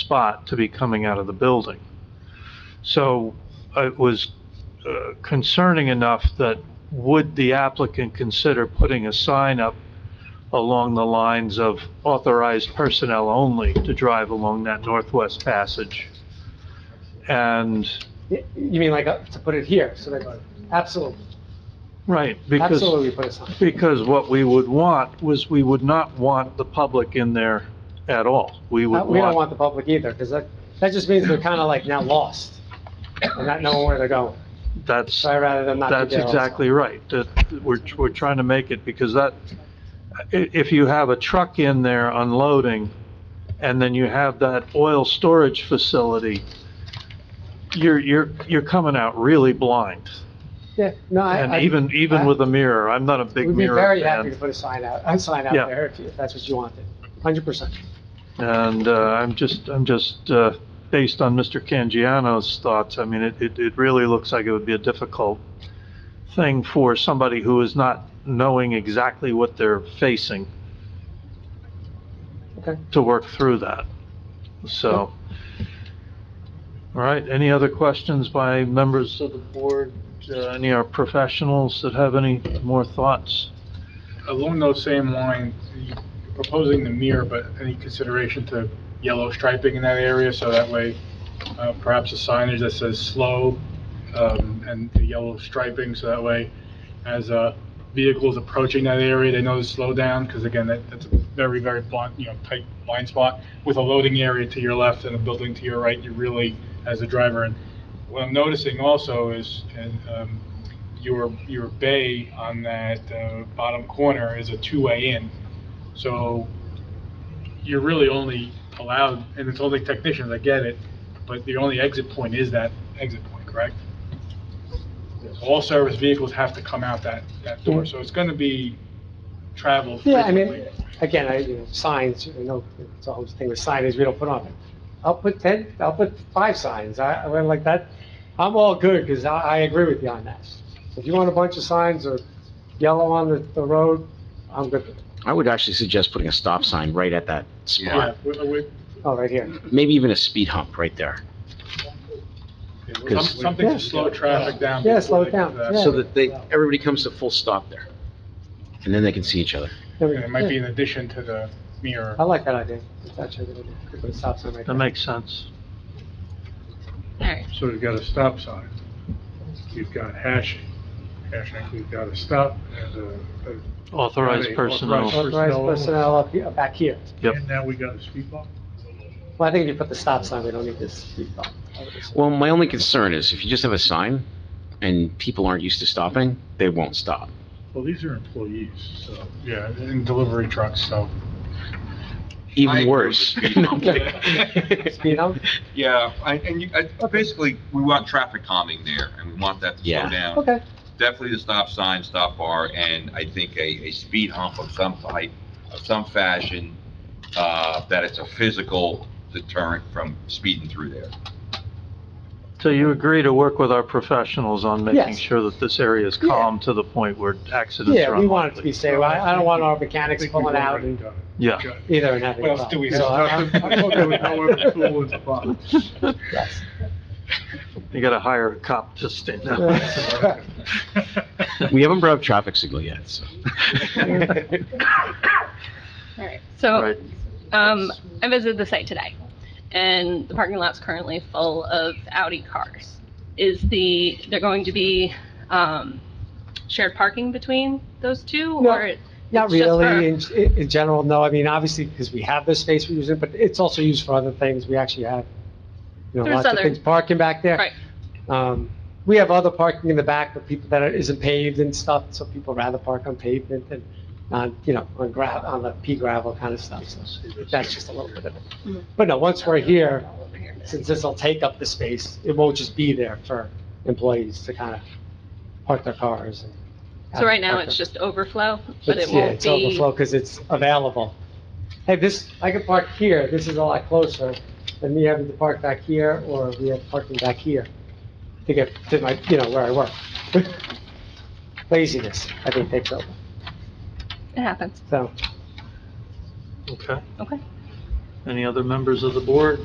spot to be coming out of the building. So uh, it was uh, concerning enough that would the applicant consider putting a sign up along the lines of authorized personnel only to drive along that northwest passage? And, Y- You mean like, uh, to put it here, so they go, absolutely, right, because. absolutely put a sign. Because what we would want was, we would not want the public in there at all. We Uh, would We don't want, want the public either, because that, that just means they're kind of like now lost and not knowing where they're going. that's, So I'd rather them not be there. that's also. exactly right. That, we're, we're trying to make it, because that, i- if you have a truck in there unloading, and then you have that oil storage facility, you're, you're, you're coming out really blind. Yeah, no, I. And I- even, even I- with a mirror, I'm not a big We'd be mirror very fan. happy to put a sign out, a sign out Yeah. there if you- if that's what you wanted, hundred percent. And uh, I'm just, I'm just, uh, based on Mr. Cangiano's thoughts, I mean, it, it it really looks like it would be a difficult thing for somebody who is not knowing exactly what they're facing Okay. to work through that. So, all right, any other questions by members of the board? Uh, Any our professionals that have any more thoughts? Along those same lines, you're proposing the mirror, but any consideration to yellow striping in that area? So that way, uh, perhaps a signage that says slow um, and the yellow striping, so that way, as uh, vehicles approaching that area, they know to slow down, because again, that- that's a very, very blunt, you know, tight blind spot. With a loading area to your left and a building to your right, you really, as a driver, and what I'm noticing also is, and um, your, your bay on that uh, bottom corner is a two-way in. So you're really only allowed, and it's only technicians, I get it, but the only exit point is that exit point, correct? All service vehicles have to come out that, that door, so it's gonna be traveled Yeah, I frequently. mean, again, I, you know, signs, you know, it's a whole thing with signage, we don't put on it. I'll put ten, I'll put five signs, I, I went like that, I'm all good, because I, I agree with you on that. If you want a bunch of signs or yellow on the, the road, I'm good, with it. I would actually suggest putting a stop sign right at that Yeah, spot, we- we- oh, right here. maybe even a speed hump right there. some- Because- something Yeah. to slow traffic down. Yeah, slow before it they down, do that. yeah. So that they, everybody comes to full stop there. And then they can see each other. There we And go. it might be Yeah. in addition to the mirror. I like that idea, it's actually a good idea, Could put a stop sign right That there. makes sense. Alright, So we've got a stop sign. We've got hashing. Hashing, we've got a stop and a, Authorized Right, personnel. authorized. Authorized personnel. personnel up, here- back here. Yep. and now we got a speed bump? Well, I think if you put the stop sign, we don't need this speed bump. Well, my only concern is if you just have a sign and people aren't used to stopping, they won't stop. Well, these are employees, so. Yeah, and delivery trucks, so. I Even agree with worse. the speed No, I'm hump. kidding. Speed hump? Yeah, I- and you, I- basically, we want traffic calming there, and we want that to Yeah. slow down. Okay, Definitely the stop sign, stop bar, and I think a, a speed hump of some type, of some fashion, uh, that it's a physical deterrent from speeding through there. So you agree to work with our professionals on making Yes. sure that this area is Yeah. calm to the point where accidents are yeah, unlikely? we want it to be safe, I, I don't want our mechanics pulling out and Yeah. either and having. What a else do problem. we So I- have? I'm- I'm okay with that. Yes. You gotta hire a cop to stand up. We haven't brought up traffic signal yet, so. alright. So, Right, um, I visited the site today, and the parking lot's currently full of Audi cars. Is the, they're going to be, um, shared parking between those two? No. or it- Not It's just really, in, in in general, no, I mean, obviously, because we have this space we're using, but it's also used for other things, we actually have, you know, There's lots of other- things parking back there. Right. Um, we have other parking in the back for people that are- isn't paved and stuff, so people rather park on pavement than on, you know, on gravel, on the pea gravel kind of stuff, so that's just a little bit of Mhm. it. But no, once we're here, Over here. since this'll take up the space, it won't just be there for employees to kind of park their cars and. So right now, park it's their- just overflow, but it It's- yeah, won't It's be, overflow because it's available. Hey, this, I could park here, this is a lot closer than me having to park back here, or we have parking back here to get to my, you know, where I work. Laziness, I think, takes over, it happens, so. okay. okay? Any other members of the board?